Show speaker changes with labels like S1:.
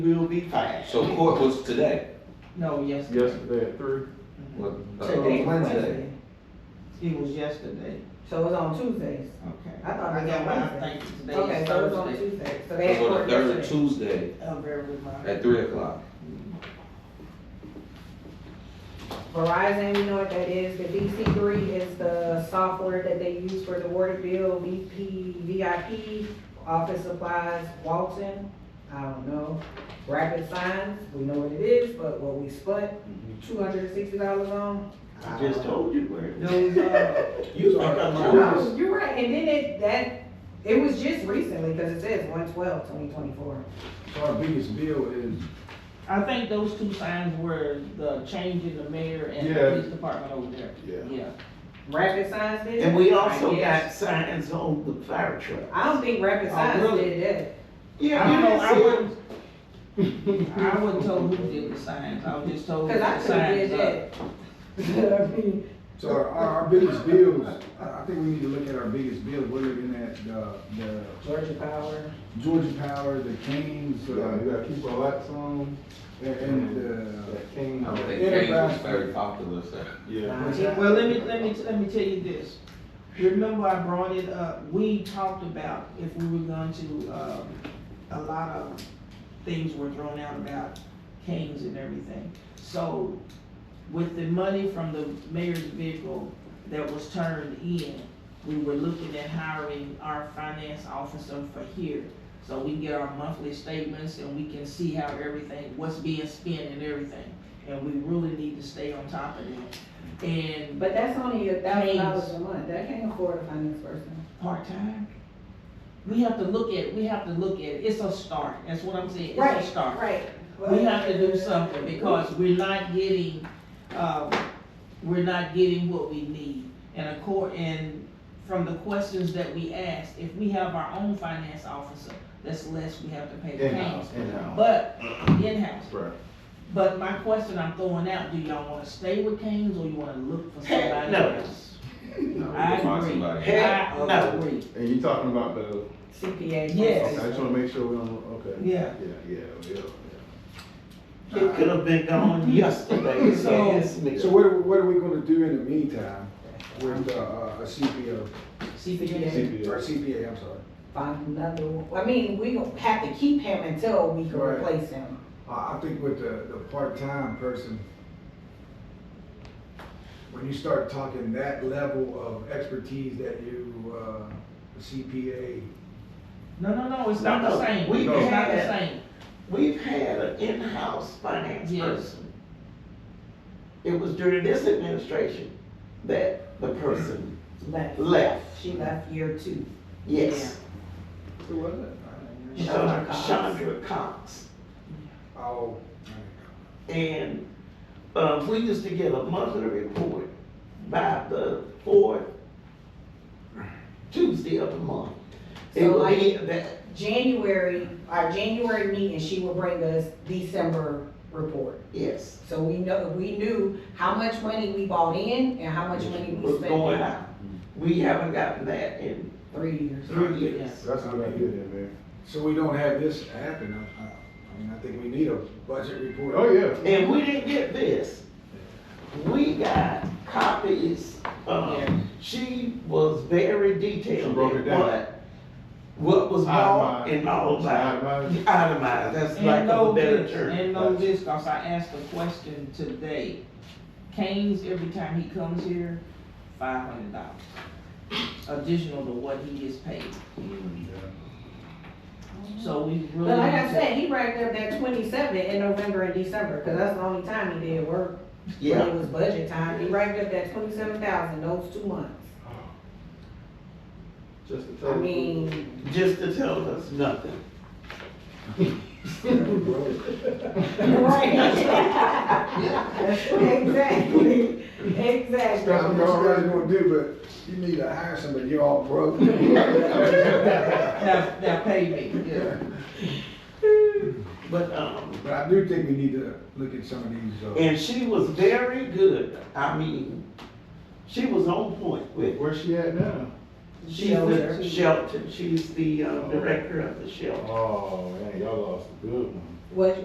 S1: will be fine.
S2: So court was today,
S1: No, yesterday.
S3: yesterday at three.
S2: what, uh,
S1: Oh,
S4: Today,
S2: Wednesday?
S5: Mm-hmm.
S1: It was yesterday.
S4: So it's on Tuesdays.
S1: Okay.
S4: I thought it was
S1: got
S4: on
S1: my- I
S4: Wednesday.
S1: think today
S4: Okay,
S1: is
S4: so it's on
S1: Thursday.
S4: Tuesdays. So they
S2: It
S4: had
S2: was on
S4: court
S2: the third
S4: yesterday.
S2: Tuesday
S5: Oh,
S1: I'm very reminded.
S2: at three o'clock.
S4: Verizon, you know what that is, the DC three is the software that they use for the water bill, VP, VIP, office supplies, Walton, I don't know. Rapid signs, we know what it is, but what we spent two hundred and sixty dollars on.
S1: Mm-hmm. I just told you where. it was.
S4: Those, uh,
S1: You
S2: are
S4: No, you're right, and then it, that, it was just recently, cause it says one twelve, twenty twenty-four.
S3: So our biggest bill is,
S5: I think those two signs were the change in the mayor and the
S3: Yeah.
S5: police department over there.
S3: Yeah.
S4: Rapid signs did it?
S1: And we
S4: I
S1: also got
S4: guess.
S1: signs on the fire truck.
S4: I don't think rapid
S5: Oh,
S4: signs
S5: really?
S4: did that.
S1: Yeah,
S5: I don't know, I
S1: see it.
S5: wasn't, I wasn't told who did the signs, I was just told
S4: Cause I
S5: the
S4: could've
S5: signs
S4: did
S5: Oh, up.
S4: that. I mean,
S6: So our, our biggest bills, I, I think we need to look at our biggest bills, we're looking at the, the
S4: Georgia Power,
S6: Georgia Power, the Kings,
S3: you gotta, you
S6: uh,
S3: gotta keep our lights on, uh,
S6: and, and the.
S3: that king.
S2: I don't think Kane was very popular, so.
S3: Yeah.
S4: Nah, it-
S5: Well, let me, let me, let me tell you this. Remember I brought it up, we talked about if we were going to, um, a lot of things were thrown out about canes and everything. So with the money from the mayor's vehicle that was turned in, we were looking at hiring our finance officer for here. So we can get our monthly statements and we can see how everything, what's being spent and everything. And we really need to stay on top of that. And
S4: but that's only a thousand dollars
S5: Please.
S4: a month, I can't afford a finance person.
S5: part-time. We have to look at, we have to look at, it's a start, that's what I'm saying,
S4: Right,
S5: it's a start.
S4: Right.
S5: We have to do something, because we're not getting, um, we're not getting what we need. And of course, and from the questions that we asked, if we have our own finance officer, that's less we have to pay the
S3: In-house,
S5: payments.
S3: in-house.
S5: But, in-house,
S3: Right.
S5: but my question I'm throwing out, do y'all wanna stay with Kane's, or you wanna look for
S1: Heck,
S5: somebody
S1: no.
S5: else?
S3: No.
S5: I
S2: Find
S5: agree,
S2: somebody.
S1: Heck,
S5: I
S1: no.
S5: agree.
S3: And you talking about the,
S4: CPA.
S5: Yes.
S3: okay, I just wanna make sure we don't, okay.
S5: Yeah.
S3: Yeah, yeah, yeah,
S1: It could have been gone yesterday, so.
S5: So-
S1: it's me.
S6: So what, are- what are we gonna do in the meantime with, uh, uh, a CPO,
S5: CPA.
S3: yeah. CPS.
S6: or CPA, I'm sorry.
S4: Find another one, I mean, we gonna have to keep him until we can
S6: Right.
S4: replace him.
S6: I, I think with the, the part-time person, when you start talking that level of expertise that you, uh, CPA,
S5: No, no, no, it's not
S1: No,
S5: the
S1: no,
S5: same.
S1: we
S5: It's not the
S1: had-
S5: same.
S1: We've had an in-house finance
S5: Yes.
S1: person. It was during this administration that the person
S4: Left,
S1: left,
S4: she left year two.
S1: yes.
S6: who was it?
S4: Chandra Cox.
S1: Chandra Cox.
S6: Oh,
S1: And, uh, we used to get a monthly report by the fourth Tuesday of the month. It
S4: So
S1: would be
S4: like-
S1: that,
S4: January, our January meeting, she will bring us December report.
S1: yes.
S4: So we know, we knew how much money we bought in and how much money we
S1: was going
S4: spent
S1: out. We haven't gotten that in
S4: three years.
S1: three years.
S3: That's what I did in there.
S6: So we don't have this happen, I, I, I mean, I think we need a budget report.
S3: Oh, yeah.
S1: And we didn't get this. We got copies,
S5: Yeah.
S1: um, she was very detailed
S3: She broke
S1: in
S3: it down.
S1: what, what was bought
S3: Itemized.
S1: and all of that.
S3: Itemized.
S1: Itemized, that's like
S5: And
S1: a
S5: no
S1: better
S5: this,
S1: term.
S5: and no this, cause I asked a question today. Kane's, every time he comes here, five hundred dollars. Additional to what he is paid. So we really.
S4: But like
S5: need
S4: I
S5: to-
S4: said, he racked up that twenty-seven in November and December, cause that's the only time he did work. When
S1: Yeah,
S4: it was budget time, he racked up that twenty-seven thousand those two months.
S3: Just to tell
S4: I
S3: you.
S4: mean,
S1: just to tell us nothing.
S4: right. Exactly,
S6: That's what
S4: exactly.
S6: I'm already gonna do, but you need to hire somebody, you're all broke.
S5: Now, now pay me, yeah.
S1: But, um,
S6: uh, But I do think we need to look at some of these, uh.
S1: and she was very good, I mean, she was on point with,
S3: Where's she at now?
S1: she's
S4: Shelter.
S1: the Shelton, she's the, uh, director of the Shelton.
S3: Oh, man, y'all lost a good one.
S4: was